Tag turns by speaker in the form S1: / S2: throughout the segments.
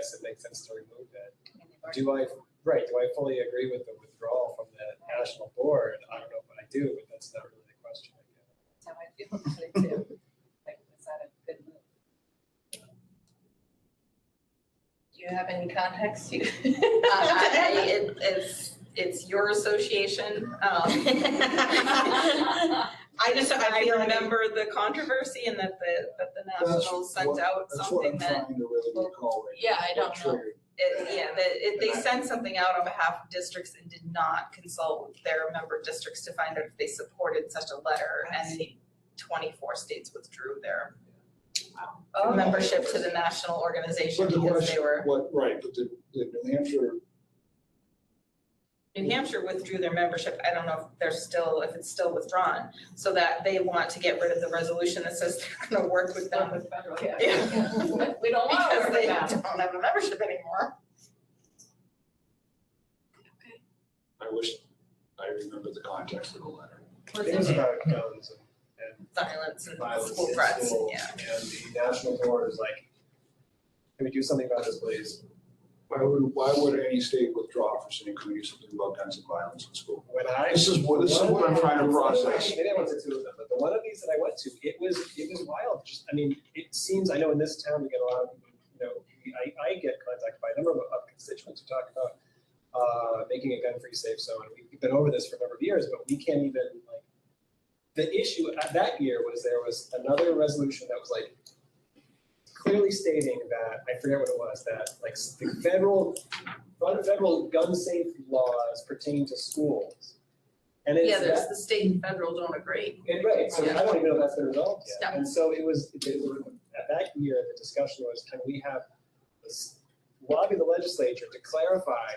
S1: yes, it makes sense to remove it. Do I, right, do I fully agree with the withdrawal from the national board? I don't know if I do, but that's not really the question. I guess.
S2: That's how I feel about it too. Like, is that a good move? Do you have any context? You-
S3: I- I- Uh, it- It's, it's your association. um, I just, I
S2: feel like-
S3: remember the controversy and that the, that the
S4: That's
S3: Nationals sent
S4: what-
S3: out
S4: That's what
S3: something
S4: I'm
S3: that,
S4: trying to really recall right now.
S2: Yeah, I
S4: What
S2: don't know.
S4: triggered-
S3: it- yeah, that it- they sent something out on behalf of districts and did not consult with their member districts to find out if they supported such a letter. And the twenty-four states withdrew their membership to the national organization
S4: But the
S3: because they
S4: question,
S3: were,
S4: what, right, but the, the New Hampshire,
S3: New Hampshire withdrew their membership. I don't know if they're still, if it's still withdrawn. So that they want to get rid of the resolution that says they're gonna work with them
S2: With federal,
S3: Yeah.
S2: We don't want to
S3: Because
S2: work
S3: they
S2: with
S3: don't
S2: that.
S3: have a membership anymore.
S4: I wish, I remember the context of the letter.
S1: It was about guns and and
S3: Violence and
S1: violence
S3: school
S1: in
S3: threats,
S1: schools,
S3: yeah.
S1: And the national board is like, can we do something about this, please?
S4: Why would, why would any state withdraw for saying, can we do something about guns and violence in school?
S1: When I.
S4: This is what, this is what I'm trying to process.
S1: Maybe I went to two of them, but the one of these that I went to, it was, it was wild, just, I mean, it seems, I know in this town, we get a lot of, people, you know, we- I, I get contacted by a number of of constituents who talk about uh, making a gun-free safe zone, we've been over this for a number of years, but we can't even, like, the issue at that year was there was another resolution that was like clearly stating that, I forget what it was, that like s- the federal, federal gun safe laws pertain to schools. And it's
S3: Yeah,
S1: that-
S3: there's the state and federal don't agree.
S1: and right, so I don't even know if that's been resolved yet.
S3: No.
S1: And so it was, it was- at that year, the discussion was, can we have this lobby the legislature to clarify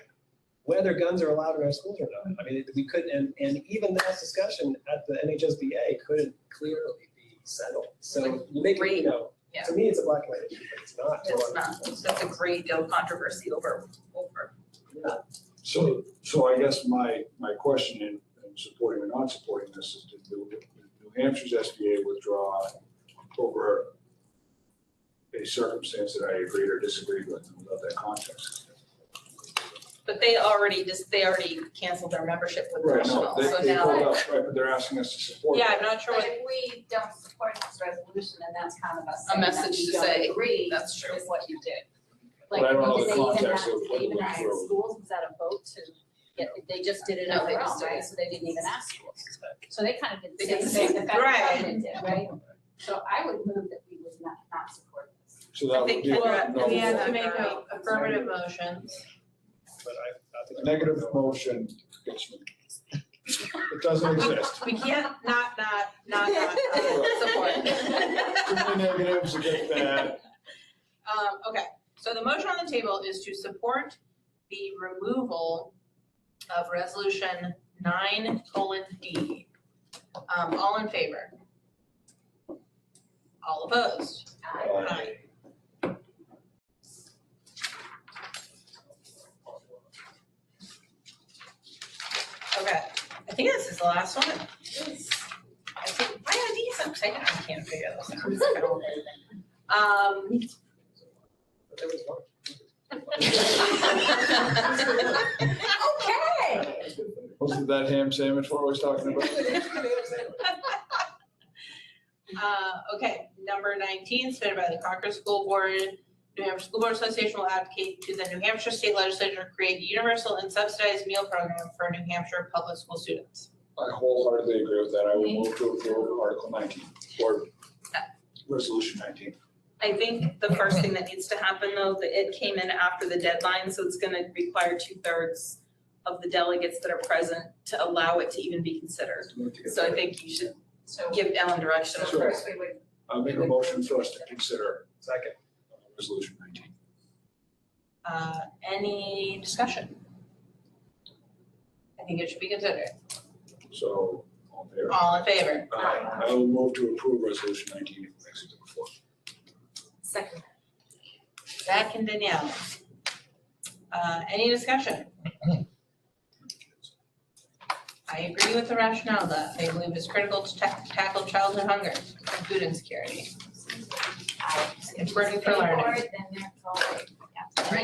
S1: whether guns are allowed in our schools or not? I mean, it- we could, and, and even that discussion at the NHSBA couldn't clearly be settled. So you make, it, you know,
S3: Yeah.
S1: to me, it's a black and white issue, but it's not. to a lot
S3: It's
S1: of
S3: not,
S1: people.
S3: that's a great deal of controversy over, over.
S4: So, so I guess my, my question in, in supporting or not supporting this is did New, did New Hampshire's SBA withdraw over a circumstance that I agreed or disagreed with and without that context?
S3: But they already just, they already canceled their membership with
S4: Right, no,
S3: National,
S4: they,
S3: so
S4: they
S3: now.
S4: pulled up, right, but they're asking us to support
S3: Yeah,
S4: that.
S3: I'm not sure
S2: But
S3: what,
S2: if we don't support this resolution, then that's kind of us
S3: A
S2: saying that
S3: message
S2: we
S3: to
S2: don't
S3: say,
S2: agree
S3: that's true.
S2: with what you did.
S4: But I don't know the
S2: Like, did they even
S4: context
S2: ask,
S4: of
S2: did
S4: what
S2: they even
S4: went
S2: ask
S4: through.
S2: schools, was that a vote to, yeah, they just did it
S3: No,
S2: on
S3: they
S2: their
S3: just
S2: own,
S3: did
S2: right? So they didn't even ask schools. So they kind of did
S3: They did
S2: the
S3: the
S2: same
S3: same-
S2: thing the federal
S3: right.
S2: government did, right? So I would move that we would not, not support this.
S4: So
S3: I
S4: that would
S3: think
S4: be a
S3: Kendra-
S4: no
S3: we
S4: vote.
S3: have to
S5: make
S3: a
S1: affirmative
S5: motion.
S1: But I, I think.
S4: A Negative motion gets me. It doesn't exist.
S5: We can't not, not, not, not.
S3: Support.
S4: Too many negatives, it gets bad.
S5: Um, okay, so the motion on the table is to support the removal of resolution nine colon D. Um, all in favor? All opposed? Aye. Okay, I think this is the last one. I think, why are these, I'm taking, I can't figure this out. It's kind of weird. Um,
S1: But there was one.
S5: Um.
S2: Okay.
S4: Wasn't that ham sandwich we're always talking about?
S5: Uh, okay, number nineteen, submitted by the Concord School Board. New Hampshire School Board Association will advocate to the New Hampshire State Legislature to create a universal and subsidized meal program for New Hampshire public school students.
S4: I wholeheartedly agree with that. I would move to approve Article nineteen or Resolution nineteen.
S3: I think the first thing that needs to happen though, that it came in after the deadline, so it's gonna require two thirds of the delegates that are present to allow it to even be considered. So I think you should
S2: So
S3: give Ellen direction.
S2: so first we would,
S4: I'll make a motion for us to consider
S1: Second.
S4: uh, Resolution nineteen.
S5: Uh, any discussion? I think it should be considered.
S4: So, all in favor?
S5: All in favor?
S4: Aye. I will move to approve Resolution nineteen if it's number four.
S2: second,
S5: Zach and Danielle. Uh, any discussion? I agree with the rationale that they believe is critical to ta- tackle childhood hunger and food insecurity.
S2: aye.
S5: It's working for learning.
S2: Support, then they're forward. Yeah.